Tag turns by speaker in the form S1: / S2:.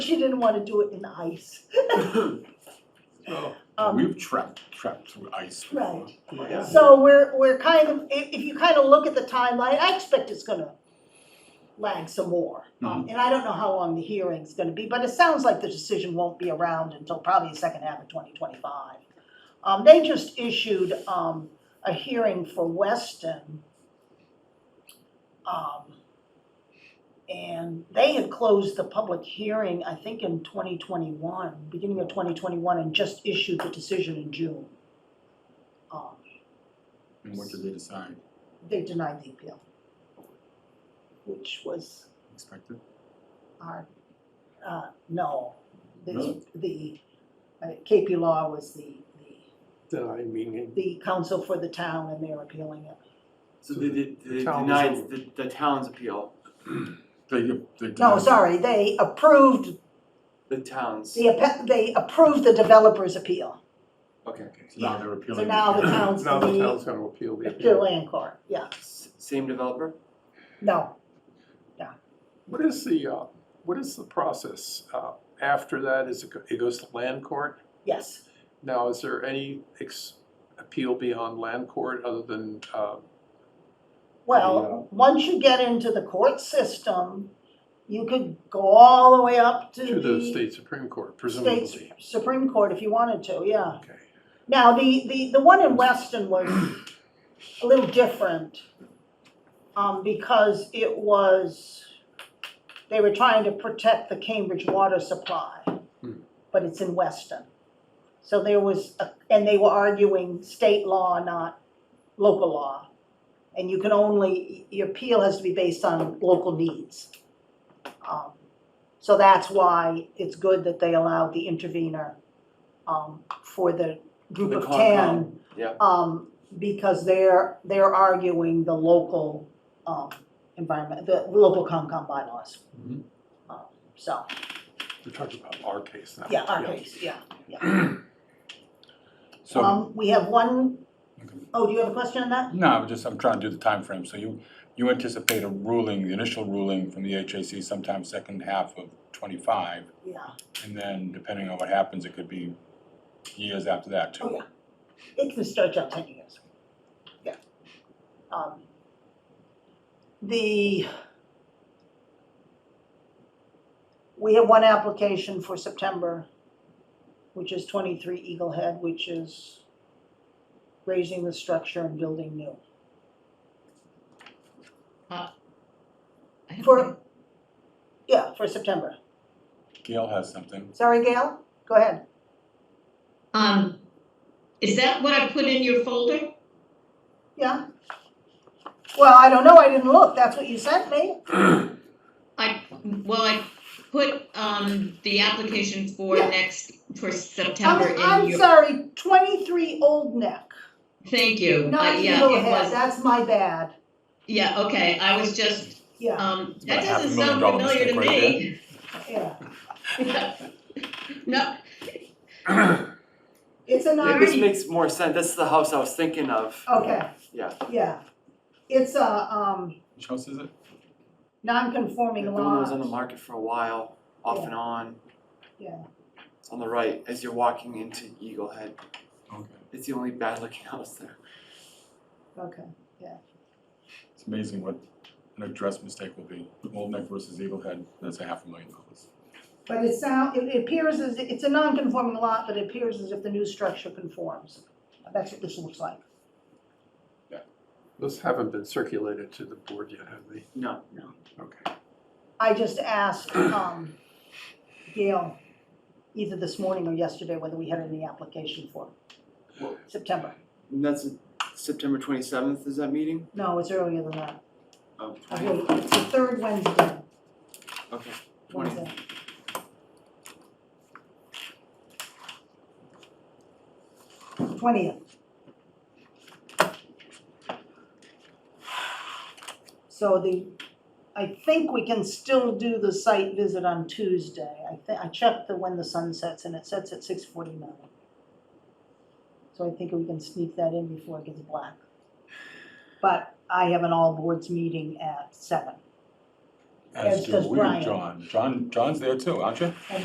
S1: she didn't wanna do it in ice.
S2: Oh,
S1: Um,
S2: We've trapped, trapped through ice before.
S1: Right.
S2: Yeah.
S1: So we're, we're kind of, if, if you kind of look at the timeline, I expect it's gonna lag some more. Um, And I don't know how long the hearing's gonna be, but it sounds like the decision won't be around until probably the second half of twenty twenty-five. Um, they just issued, um, a hearing for Weston. Um, and they had closed the public hearing, I think in twenty twenty-one, beginning of twenty twenty-one, and just issued the decision in June. Um,
S2: And what did they decide?
S1: they denied the appeal, which was
S2: Expected?
S1: our, uh, no. The,
S2: Really?
S1: the, uh, KP Law was the, the,
S3: Then I mean,
S1: the counsel for the town and they're appealing it.
S4: So they did,
S3: The
S4: they
S3: town
S4: denied
S3: was-
S4: the, the town's appeal,
S2: They, they.
S1: No,
S2: denied-
S1: sorry, they approved,
S4: the town's,
S1: the, appe- they approved the developer's appeal.
S4: okay,
S2: So now they're appealing.
S1: So now the town's
S3: now the
S1: the,
S3: town's gonna appeal the
S1: the
S3: appeal.
S1: land court, yeah,
S4: S- same developer?
S1: no.
S3: What is the, uh, what is the process, uh, after that, is it, go- it goes to land court?
S1: Yes,
S3: Now, is there any ex, appeal beyond land court other than, uh,
S1: well, once you get into the court system, you could go all the way up to
S3: to the
S1: the
S3: state Supreme Court
S1: state's
S3: presumably?
S1: Supreme Court if you wanted to, yeah.
S3: Okay,
S1: Now, the, the, the one in Weston was a little different, um, because it was, they were trying to protect the Cambridge water supply,
S3: Hmm.
S1: but it's in Weston. So there was, a- and they were arguing state law, not local law. And you can only, your appeal has to be based on local needs. Um, So that's why it's good that they allowed the intervener, um, for the group
S4: The
S1: of
S4: Concom,
S1: ten.
S4: yeah.
S1: Um, because they're, they're arguing the local, um, environment, the local Concom bylaws.
S4: Mm-hmm.
S3: Mhm.
S1: Um, So,
S3: we're talking about our case now.
S1: yeah, our case, yeah, yeah.
S5: So,
S1: Um, we have one, oh, do you have a question on that?
S5: no, I'm just, I'm trying to do the time frame. So you, you anticipate a ruling, the initial ruling from the HAC sometime second half of twenty-five,
S1: Yeah,
S5: and then depending on what happens, it could be years after that
S1: Oh,
S5: too.
S1: yeah. it can stretch out ten years. Yeah. Um, The, we have one application for September, which is twenty-three Eagle Head, which is raising the structure and building new.
S6: I have
S1: For, yeah, for September.
S5: Gail has something.
S1: Sorry, Gail, go ahead.
S6: a- Um, is that what I put in your folder?
S1: Yeah? Well, I don't know, I didn't look, that's what you sent me.
S6: I, well, I put, um, the application for
S1: Yeah.
S6: next, for September
S1: I'm,
S6: in
S1: I'm
S6: your,
S1: sorry, twenty-three Old Neck.
S6: thank you. Uh,
S1: Not
S6: yeah,
S1: Eagle
S6: it
S1: Head,
S6: was-
S1: that's my bad,
S6: Yeah, okay, I was just,
S1: yeah,
S6: um,
S5: It's
S6: that
S5: about a half a
S6: doesn't
S5: million
S6: sound
S5: dollar
S6: familiar to
S5: mistake
S6: me.
S1: yeah.
S6: No,
S1: It's a
S4: Yeah,
S1: non,
S4: This makes more sense, this is the house I was thinking of.
S1: okay,
S4: Yeah.
S1: yeah. It's a, um,
S5: Which house is it?
S1: non-conforming
S4: The
S1: lot.
S4: one that was on the market for a while, off
S1: Yeah.
S4: and on.
S1: Yeah.
S4: It's on the right, as you're walking into Eagle Head,
S5: Okay.
S4: it's the only bad looking house there.
S1: Okay,
S5: It's amazing what an address mistake will be. Old Neck versus Eagle Head, that's a half a million dollars.
S1: but it sound, it it appears as, it's a non-conforming lot, but it appears as if the new structure conforms. That's what this looks like.
S3: Those haven't been circulated to the board yet, have they?
S4: No,
S3: Okay.
S1: I just asked, um, Gail, either this morning or yesterday, whether we had any application for
S4: Well-
S1: September.
S4: and that's September twenty seventh is that meeting?
S1: No, it's earlier than that.
S4: Oh,
S1: I
S4: 20th.
S1: wait, it's the third Wednesday,
S4: okay, twenty.
S1: Wednesday. Twentieth. So the, I think we can still do the site visit on Tuesday. I thi- I checked the when the sun sets and it sets at six forty-nine. So I think we can sneak that in before it gets black. But I have an all boards meeting at seven. As
S5: As do
S1: does
S5: we,
S1: Brian.
S5: John. John, John's there too, aren't you?